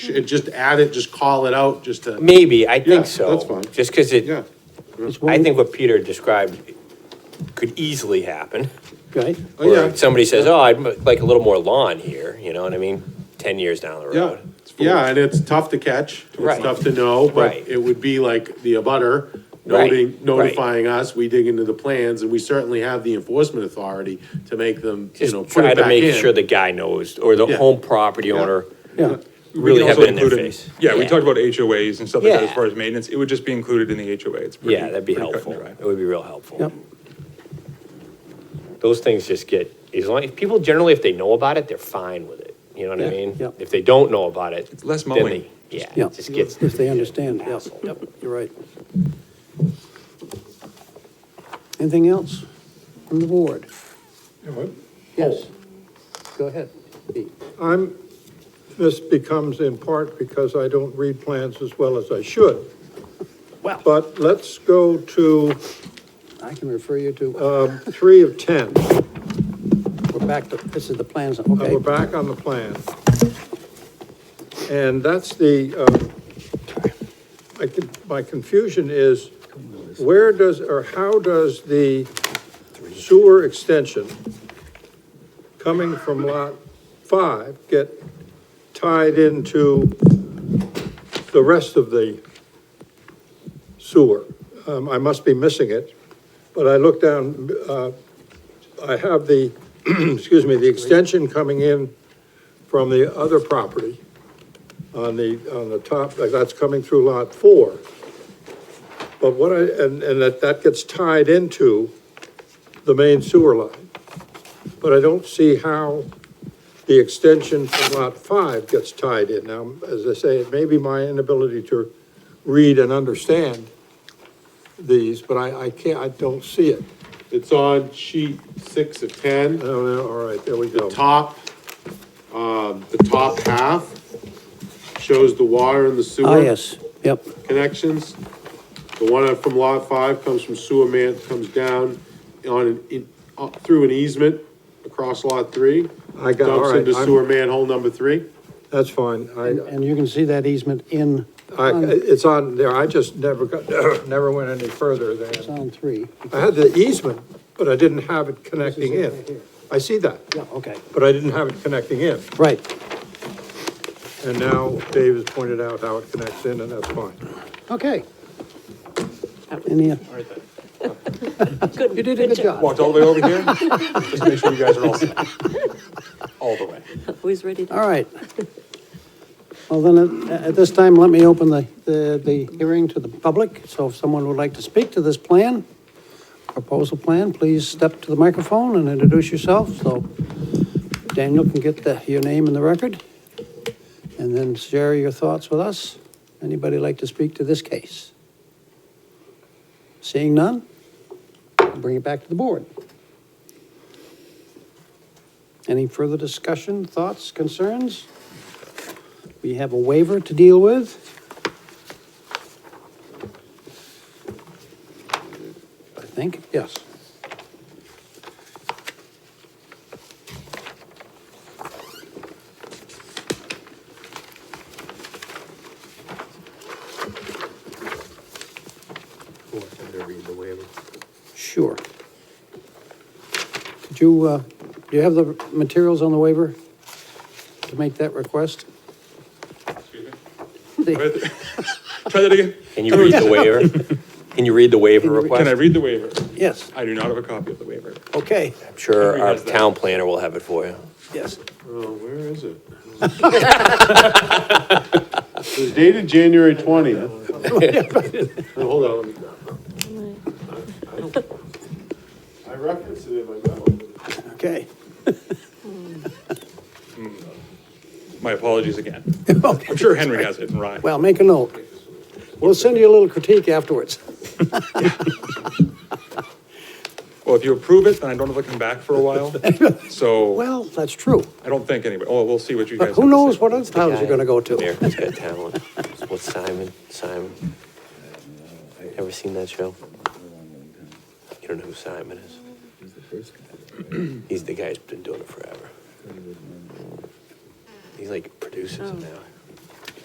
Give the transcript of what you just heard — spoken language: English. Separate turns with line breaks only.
and just add it, just call it out, just to.
Maybe, I
Yeah,
think so.
that's fine.
Just because it,
Yeah,
I think what Peter described could easily happen.
Right?
Oh, yeah.
Where somebody says, oh, I'd m- like a little more lawn here, you know what I mean? Ten years down the
yeah,
road.
yeah, and it's tough to catch, it's
Right.
tough to know, but
Right.
it would be like the abutter
Right,
noting,
right.
notifying us, we dig into the plans, and we certainly have the enforcement authority to make them, you
Just
know, put
try
it
to
back
make sure
in.
the guy knows, or the
Yeah.
home property owner,
Yeah.
really
can
have
also
it in their
include it-
face.
Yeah, we
Yeah.
talked about HOAs and stuff like that as
Yeah.
far as maintenance. It would just be included in the HOA. It's pretty.
yeah, that'd be
pretty cut and
helpful.
dry.
It would be real helpful.
Yep.
Those things just get, as long, if people generally, if they know about it, they're fine with it, you know what I
Yeah,
mean?
yeah.
If they don't know about it.
It's less
then
mowing.
they- Yeah,
Yeah,
it just gets.
if they understand, yeah,
hassle.
yep, you're right. Anything else from the board? Yes. Go ahead. Pete.
I'm, this becomes in part because I don't read plans as well as I should.
Well.
But let's go to um,
I can refer you to, uh,
three of 10. Uh,
we're back to, this is the plans,
We're
okay.
back on the plan. And that's the, uh, I could- my confusion is, where does, or how does the sewer extension coming from Lot 5 get tied into the rest of the sewer? Um, I must be missing it, but I looked down, uh, I have the, excuse me, the extension coming in from the other property on the, on the top, like, that's coming through lot four. But what I, and, and that, that gets tied into the main sewer line. But I don't see how the extension from lot five gets tied in. Now, as I say, it may be my inability to read and understand these, but I, I can't, I don't see it.
It's on sheet six of ten.
I don't know, all right, there we go.
the top, um, the top half shows the water and the
Ah,
sewer
yes, yep,
connections. The one from lot five comes from sewer man, comes down on, an in, up through an easement across lot three.
I got- all
Dumps
right,
into
I'm-
sewer manhole number three.
That's fine.
and
I,
and you can see that easement in,
I,
on,
it's on there. I just never got, never went any further
it's
than,
on three.
I had the easement, but I didn't have it connecting in. I see that,
Yeah, okay,
but I didn't have it connecting in.
right,
And now Dave has pointed out how it connects in, and that's fine.
okay. Any, you did a good job.
Walked all the way over here, just make sure you guys are all set. All the way.
Who's ready to?
All right. Well, then, at at this time, let me open the, the, the hearing to the public. So if someone would like to speak to this plan, proposal plan, please step to the microphone and introduce yourself, so Daniel can get the, your name in the record. And then share your thoughts with us. Anybody like to speak to this case? Seeing none, bring it back to the board. Any further discussion, thoughts, concerns? We have a waiver to deal with. I think, yes. Sure. Could you, uh, do you have the materials on the waiver to make that request? The-
Try that again.
Can you read the waiver? Can you read the waiver request?
Can I read the waiver?
Yes,
I do not have a copy of the waiver.
okay,
I'm sure
Henry
our
has that.
town planner will have it for you.
yes.
Oh, where is it? It was dated January twentieth. Hold on, let me grab it. I don't- I referenced it in my memo.
Okay.
My apologies again. I'm sure Henry has it in Ryan.
Well, make a note. We'll send you a little critique afterwards.
Well, if you approve it, then I don't have to come back for a while. So
Well, that's true.
I don't think anybody, oh, we'll see what you guys.
But who
have to
knows
say.
what other towns you're gonna go to?
America's Got Talent. What's Simon? Simon? Ever seen that show? You don't know who Simon is? He's the guy who's been doing it forever. He's like producers now.